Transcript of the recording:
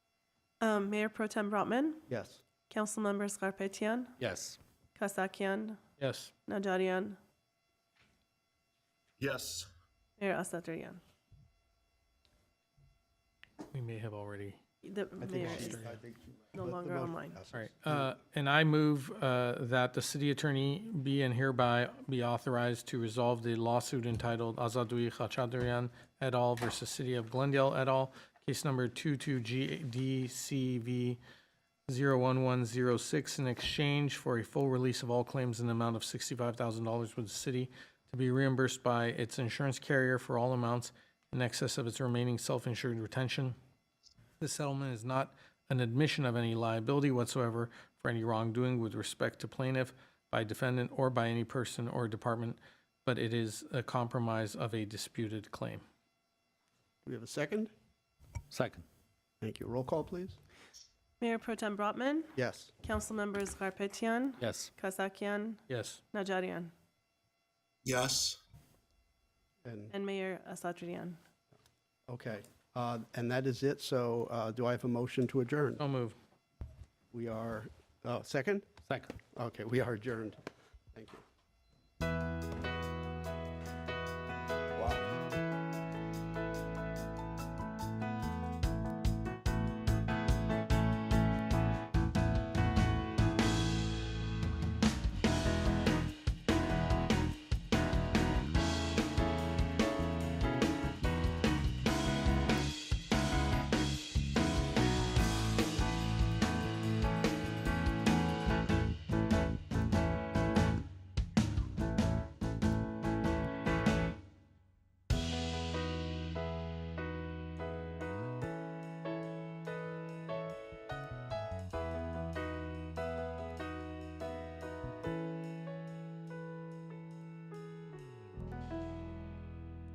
Um, Mayor Pro Tem Brotman, Yes. Council Members Garpetian, Yes. Kasakian, Yes. Najarian, Yes. Mayor Asatryan. We may have already. The mayor is no longer online. All right. Uh, and I move, uh, that the city attorney be and hereby be authorized to resolve the lawsuit entitled Azadui Khachaturian et al. versus City of Glendale et al. Case number 22GDCV 01106 in exchange for a full release of all claims in the amount of $65,000 with the city to be reimbursed by its insurance carrier for all amounts in excess of its remaining self-insured retention. This settlement is not an admission of any liability whatsoever for any wrongdoing with respect to plaintiff by defendant or by any person or department, but it is a compromise of a disputed claim. We have a second? Second. Thank you. Roll call, please. Mayor Pro Tem Brotman, Yes. Council Members Garpetian, Yes. Kasakian, Yes. Najarian, Yes. And, and Mayor Asatryan. okay. Uh, And that is it. So uh, do I have a motion to adjourn? So move. We are, oh, second? Second. Okay, we are adjourned. Thank you.